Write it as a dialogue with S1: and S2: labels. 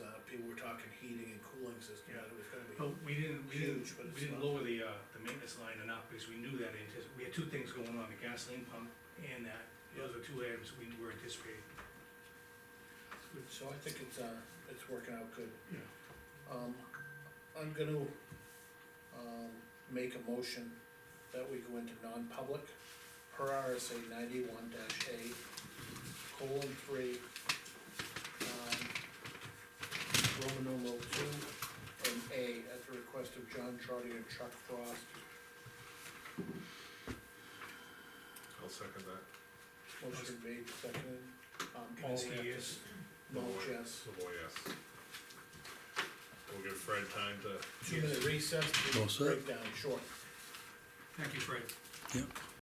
S1: uh, talking heating and cooling system,
S2: Yeah. Oh.
S1: that it was gonna be.
S2: But we didn't, we didn't,
S1: Huge, but it's
S2: we didn't
S1: not.
S2: lower the, uh, the maintenance line enough, because we knew that, antici- we had two things going on, the gasoline pump and that. Those were two items we were anticipating.
S1: So I think it's, uh, it's working out good.
S2: Yeah.
S1: Um, I'm gonna, um, make a motion that we go into non-public per RSA ninety-one dash A, colon three, um, Roman numeral two, and A, at the request of John Charlie and Chuck Frost.
S3: I'll second that.
S1: Motion made, seconded, um, all,
S2: Because he is,
S1: Mulch, yes.
S3: Savoy, yes. We'll give Fred time to
S1: Two minute recess, to
S4: All set.
S1: break down short.
S2: thank you, Fred.